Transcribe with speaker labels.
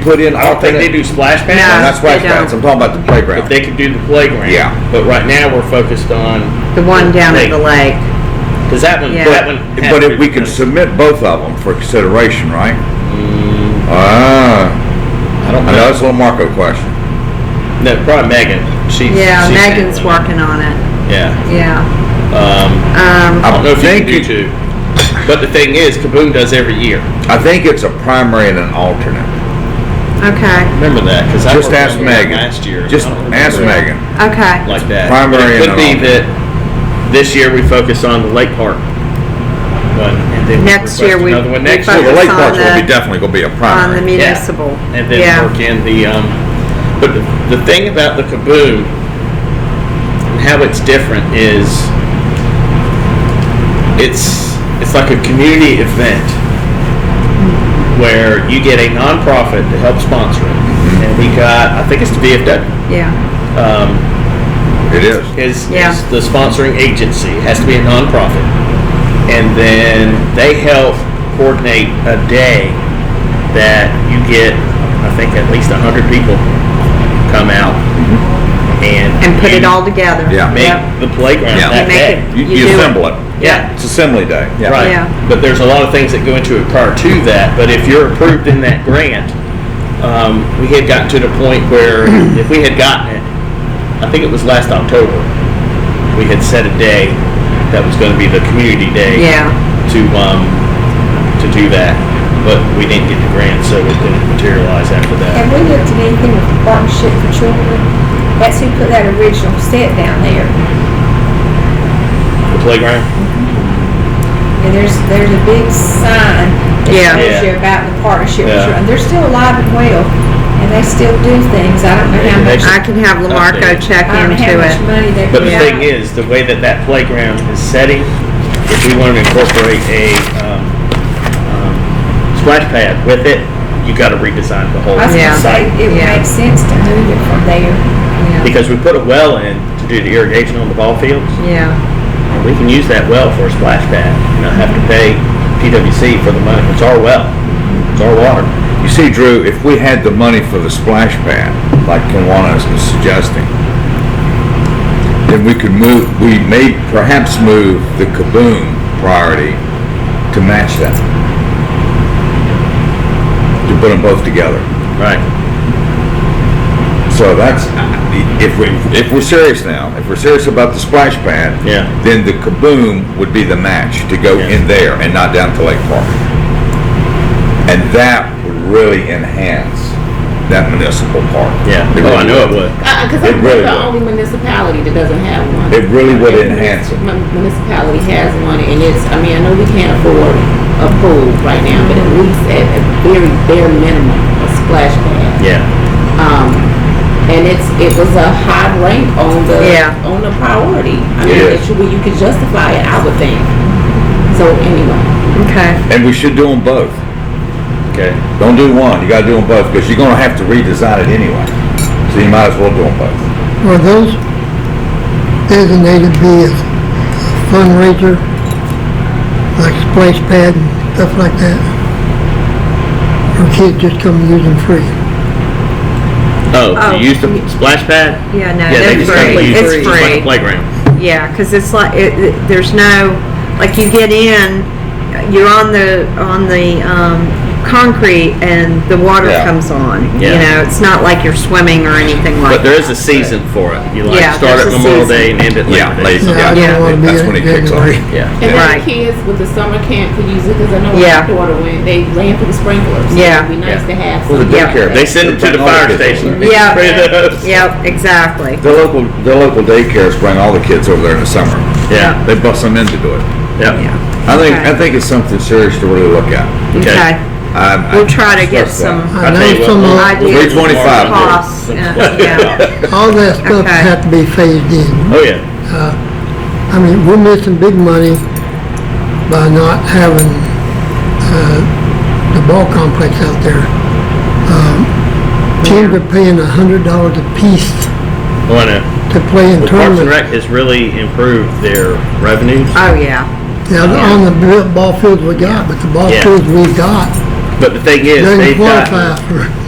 Speaker 1: put in
Speaker 2: I don't think they
Speaker 1: alternate.
Speaker 2: do splash
Speaker 1: No,
Speaker 2: pads.
Speaker 1: Not splash
Speaker 3: they
Speaker 1: pads, I'm
Speaker 3: don't.
Speaker 1: talking about the playground.
Speaker 2: If they could do the playground.
Speaker 1: Yeah.
Speaker 2: But right now we're focused on
Speaker 3: The one down at the lake.
Speaker 2: because that one.
Speaker 3: Yeah.
Speaker 2: That one. has
Speaker 1: But if we
Speaker 2: to be-
Speaker 1: can submit both of them for consideration, right? Mm. Ah,
Speaker 2: I don't
Speaker 1: I
Speaker 2: know.
Speaker 1: know it's a little Marco question.
Speaker 2: No, probably Megan. She.
Speaker 3: Yeah,
Speaker 2: she's
Speaker 3: Megan's
Speaker 2: handling
Speaker 3: working on it.
Speaker 2: it. Yeah.
Speaker 3: Yeah.
Speaker 2: Um,
Speaker 3: Um,
Speaker 2: I don't know if you
Speaker 1: think
Speaker 2: can do
Speaker 1: it-
Speaker 2: two. But the thing is, Kaboom does every year.
Speaker 1: I think it's a primary and an alternate.
Speaker 3: okay.
Speaker 2: Remember that because I
Speaker 1: Just
Speaker 2: worked on
Speaker 1: ask
Speaker 2: that
Speaker 1: Megan.
Speaker 2: last year.
Speaker 1: Just
Speaker 2: I don't
Speaker 1: ask
Speaker 2: remember it
Speaker 1: Megan.
Speaker 3: Okay.
Speaker 2: like that.
Speaker 1: Primary
Speaker 2: But it could
Speaker 1: and
Speaker 2: be
Speaker 1: all.
Speaker 2: that this year we focus on the lake park. One, and then
Speaker 3: Next
Speaker 2: request
Speaker 3: year we-
Speaker 2: another one
Speaker 3: we
Speaker 2: next
Speaker 3: focus
Speaker 1: Well,
Speaker 2: year.
Speaker 1: the lake
Speaker 3: on
Speaker 1: parks will
Speaker 3: the-
Speaker 1: be definitely gonna be a
Speaker 3: On the
Speaker 1: primary.
Speaker 3: municipal.
Speaker 2: and then work
Speaker 3: Yeah.
Speaker 2: in the um, but the, the thing about the kaboom and how it's different is it's it's like a community event where you get a nonprofit to help sponsor it and we got i think it's the vfw
Speaker 3: Yeah.
Speaker 2: um,
Speaker 1: It is.
Speaker 2: is,
Speaker 3: Yeah.
Speaker 2: is the sponsoring agency. It has to be a nonprofit. And then they help coordinate a day that you get, I think, at least 100 people come out and,
Speaker 3: Mm-hmm. And put it
Speaker 2: you
Speaker 3: all together.
Speaker 1: Yeah.
Speaker 2: Make
Speaker 3: Yep.
Speaker 2: the playground
Speaker 1: Yeah.
Speaker 2: that
Speaker 3: Make
Speaker 2: day.
Speaker 3: it-
Speaker 1: You,
Speaker 3: You
Speaker 1: you
Speaker 3: do it.
Speaker 1: assemble it.
Speaker 2: Yeah.
Speaker 1: It's assembly day. Yeah.
Speaker 2: Right.
Speaker 3: Yeah.
Speaker 2: But there's a lot of things that go into it prior to that. But if you're approved in that grant, um, we had gotten to the point where if we had gotten it, I think it was last October, we had set a day that was going to be the community day
Speaker 3: Yeah.
Speaker 2: to um, to do that. But we didn't get the grant, so it didn't materialize after that.
Speaker 4: Have we looked at anything with partnership for children? That's who put that original set down there.
Speaker 2: The playground.
Speaker 4: And there's, there's a big sign
Speaker 3: Yeah.
Speaker 2: Yeah.
Speaker 4: that tells you about the partnership for
Speaker 2: Yeah.
Speaker 4: children. They're still alive and well, and they still do things. I don't know how
Speaker 2: And they
Speaker 4: much,
Speaker 3: I can have Lamarco
Speaker 2: Updated.
Speaker 3: check
Speaker 4: I don't know Um, how
Speaker 3: into
Speaker 4: much
Speaker 3: it.
Speaker 4: money they.
Speaker 2: But the
Speaker 4: put
Speaker 2: thing
Speaker 4: out.
Speaker 2: is, the way that that playground is setting, if we want to incorporate a um, um, splash pad with it, you got to redesign the whole
Speaker 4: I was
Speaker 3: Yeah.
Speaker 4: gonna say,
Speaker 2: site.
Speaker 4: it would
Speaker 3: Yeah.
Speaker 4: make sense to move it from there.
Speaker 3: Yeah.
Speaker 2: Because we put a well in to do the irrigation on the ball fields,
Speaker 3: Yeah.
Speaker 2: and we can use that well for a splash pad, and not have to pay PWC for the money. It's our well, it's our water.
Speaker 1: You see, Drew, if we had the money for the splash pad, like Kiwanis was suggesting, then we could move, we may perhaps move the kaboom priority to match that. To put them both together.
Speaker 2: Right.
Speaker 1: So that's, if we, if we're serious now, if we're serious about the splash pad,
Speaker 2: Yeah.
Speaker 1: then the kaboom would be the match to go
Speaker 2: Yeah.
Speaker 1: in there and not down to Lake Park. And that would really enhance that municipal park.
Speaker 2: Yeah.
Speaker 1: It
Speaker 2: Oh, I
Speaker 1: really
Speaker 2: know it would.
Speaker 5: Because
Speaker 1: It
Speaker 5: Uh, I'm
Speaker 1: really
Speaker 5: the
Speaker 1: would.
Speaker 5: only municipality that doesn't have one.
Speaker 1: It really would
Speaker 5: Every
Speaker 1: enhance it.
Speaker 5: mun- Municipality has one, and it's, I mean, I know we can't afford a pool right now, but at least at a very bare minimum, a splash pad.
Speaker 2: Yeah.
Speaker 5: Um, and it's, it was a high rank on the,
Speaker 3: Yeah.
Speaker 5: on the priority. I
Speaker 1: It
Speaker 5: mean,
Speaker 1: is.
Speaker 5: it should, be- you could justify it, I would think. So anyway,
Speaker 3: Okay.
Speaker 1: And we should do them both.
Speaker 2: Okay.
Speaker 1: Don't do one, you gotta do them both, because you're gonna have to redesign it anyway. So you might as well do them both.
Speaker 6: Are those designated to be as fundraiser, like splash pad and stuff like that? Or kids just come and use them free?
Speaker 2: Oh,
Speaker 3: Oh.
Speaker 2: you use the splash pad?
Speaker 3: Yeah, no,
Speaker 2: yeah, they
Speaker 3: they're
Speaker 2: just kinda
Speaker 3: free.
Speaker 2: use it.
Speaker 3: It's
Speaker 2: It's like a
Speaker 3: free.
Speaker 2: playground.
Speaker 3: Yeah, because it's like, it, it- there's no, like you get in, you're on the, on the, um, concrete and the water
Speaker 1: Yeah.
Speaker 3: comes on. You
Speaker 2: Yeah.
Speaker 3: know, it's not like you're swimming or anything like that.
Speaker 2: But there is a season for it. You like
Speaker 3: Yeah,
Speaker 2: start at
Speaker 3: there's a
Speaker 2: Memorial Day
Speaker 3: season.
Speaker 2: and end at Labor
Speaker 1: Yeah,
Speaker 2: Day.
Speaker 1: late,
Speaker 6: No, I
Speaker 1: yeah,
Speaker 6: don't wanna be
Speaker 1: that's
Speaker 6: in
Speaker 1: when it kicks off.
Speaker 6: January.
Speaker 2: Yeah.
Speaker 5: and then
Speaker 3: Right.
Speaker 5: the kids with the summer camp could use it, because I know
Speaker 3: Yeah.
Speaker 5: my daughter went, they ran through the sprinklers. so
Speaker 3: Yeah.
Speaker 5: It'd be nice to have
Speaker 1: Well,
Speaker 5: some.
Speaker 1: the daycare.
Speaker 2: They send them to the fire station.
Speaker 3: Yeah.
Speaker 2: Spray those.
Speaker 3: Yep, exactly.
Speaker 1: The local, the local daycares bring all the kids over there in the summer.
Speaker 2: Yeah.
Speaker 1: They bust them in to do it.
Speaker 2: Yeah.
Speaker 3: Yeah.
Speaker 1: I think,
Speaker 3: Okay.
Speaker 1: I think it's something serious to really look at.
Speaker 2: Okay.
Speaker 3: Okay.
Speaker 1: I- I
Speaker 3: We'll try to get
Speaker 1: trust that.
Speaker 3: some
Speaker 6: I
Speaker 2: tell you
Speaker 6: know
Speaker 2: what,
Speaker 6: some
Speaker 2: we'll-
Speaker 6: of,
Speaker 3: ideas.
Speaker 1: 325.
Speaker 3: Costs, and- yeah.
Speaker 6: all that stuff
Speaker 3: Okay.
Speaker 6: had to be phased in.
Speaker 2: Oh, yeah.
Speaker 6: I mean, we're missing big money by not having, uh, the ball complex out there. Um, Kids are paying a hundred dollars a piece
Speaker 2: Well, I know.
Speaker 6: to play in
Speaker 2: Well, Parks and
Speaker 6: tournaments.
Speaker 2: Rec has really improved their revenues,
Speaker 3: Oh, yeah.
Speaker 6: Yeah, on the real ball fields we got, but the ball
Speaker 2: Yeah.
Speaker 6: fields we got
Speaker 2: but the thing is,
Speaker 6: doesn't
Speaker 2: they've
Speaker 6: qualify
Speaker 2: got,
Speaker 6: for,